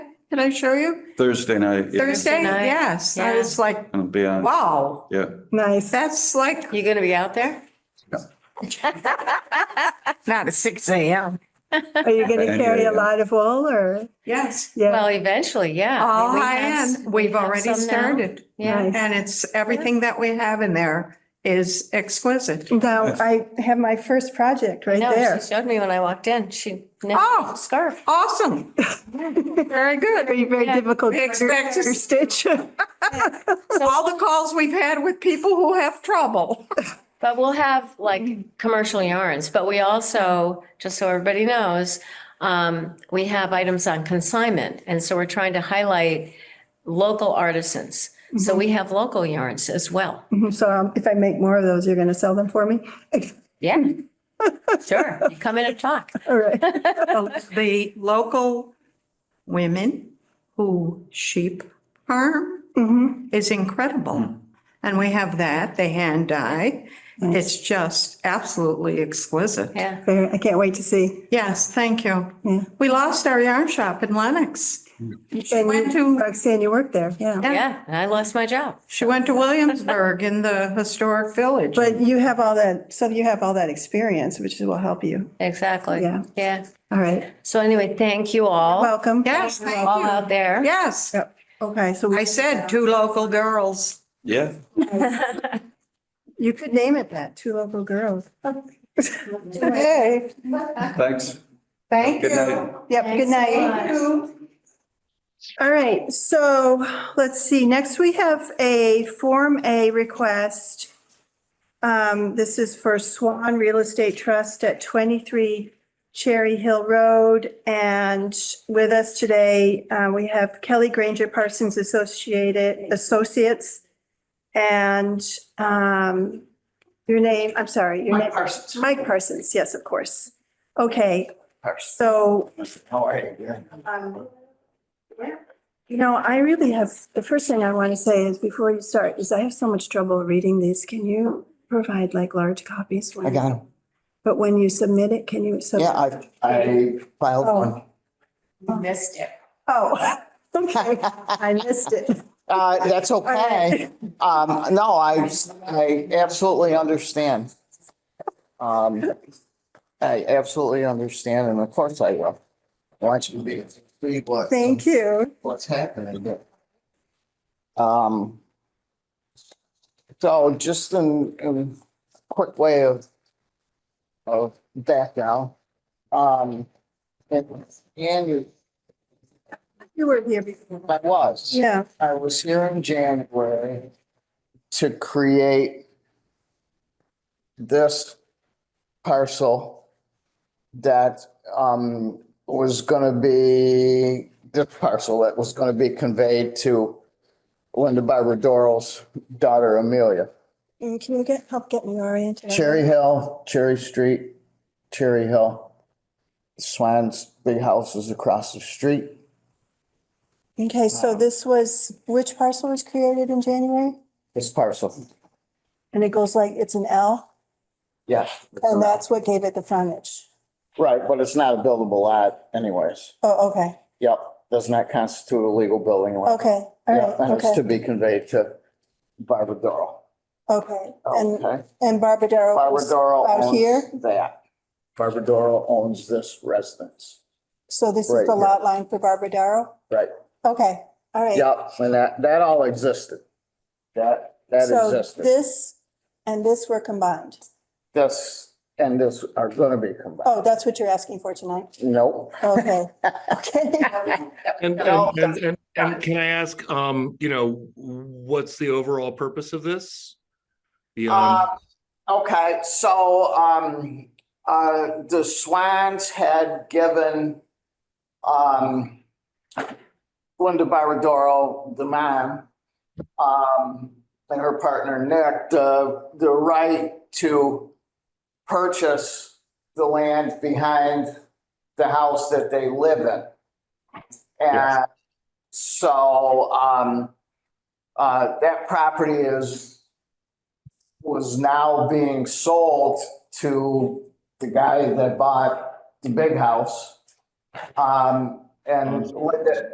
Did I show you? Thursday night. yeah. Thursday, night, yes. I yeah. was like, I'll be on, wow, yeah. Nice. that's like You gonna be out there? Not at six AM. Are you going to Yeah, carry yeah. a lot of wool or? Yes, Yeah. Well, eventually, yeah. Oh, I mean, all we high have s- end. Oh, We've have already some now. started. Yeah. Nice. And it's, everything that we have in there is exquisite. Now, Yes. I have my first project right No, there. she showed me when I walked in. She knit Oh. a scarf. Awesome. Very good. Very, very Yeah. difficult. We expect to- quarter Stitch. All the calls we've had with people who have trouble. But we'll have like commercial yarns, but we also, just so everybody knows, um, we have items on consignment. And so we're trying to highlight local artisans. So we have local yarns as well. Mhm, So um, if I make more of those, you're going to sell them for me? Yeah. Sure. You Come in and talk. All right. the- the local women who sheep farm Mhm. is incredible. And we have that, they hand dye. It's just absolutely exquisite. Yeah. Very- I can't wait to see. Yes, thank you. Yeah. We lost our yarn shop in Lenox. She And went to, you- Roxanne, you worked there, yeah. Yeah. And I lost my job. she went to Williamsburg in the historic village. But you have all that, so you have all that experience, which will help you. Exactly. Yeah. Yeah. All right. So anyway, thank you Oh, all, Welcome. Yes, thank all you. out there. Yes, Okay, so. we- I said two local girls. Yeah, You could name it that, Two Local Girls. Hey, thanks. Thank Good night. yep, good night. All right, so let's see, next we have a Form A request. Um, this is for Swan Real Estate Trust at twenty-three Cherry Hill Road. And with us today, uh, we have Kelly Granger Parsons Associated, Associates. And, um, your name, I'm sorry, your name. Mike Parsons. Mike Parsons, yes, of course. Okay, so How are you doing? um, You know, I really have, the first thing I want to say is before you start, is I have so much trouble reading these. Can you provide like large copies? when- I got him. But when you submit it, can you? sub- Yeah, I, I filed Oh. one. Missed it. Oh, okay. I missed it. Uh, that's okay. Um, no, I, I absolutely understand. Um, I absolutely understand and of course I will. I Want you to be free, but. Thank you. what's happening. Um. So just in, in quick way of, of background, um, and, and you, You were here before. I was. Yeah, I was here in January to create this parcel that um was gonna be, this parcel that was gonna be conveyed to Linda Barbadoro's daughter Amelia. Mm, can you get, help get me oriented? on Cherry that? Hill, Cherry Street, Cherry Hill. Swan's big house is across the street. Okay, so this was, which parcel was created in January? This parcel. And it goes like, it's an L, Yeah. and that's what gave it the frontage. Right, but it's not a buildable lot anyways. Oh, okay, Yep, does not constitute a legal building lot. okay, Yeah, all and right, it's to okay, be conveyed to Barbara Doral. okay. And Oh, Okay, And Barbadaro. Barbara Doral out here? owns that. Barbara Doral owns this residence. So this right is the here. lot line for Barbadaro? Right. Okay, all right. Yep, and that, that all existed. That, that So existed. this and this were combined. This and this are gonna be combined. Oh, that's what you're asking for tonight? Nope. Okay, okay. And, No, and, and, and- and can I ask, um, you know, what's the overall purpose of this? Beyond, Um, Okay, so, um, uh, the Swans had given, um, Linda Barbadoro, the man, um, and her partner Nick, the, the right to purchase the land behind the house that they live in. And Yes. so, um, uh, that property is was now being sold to the guy that bought the big house. Um, and Linda,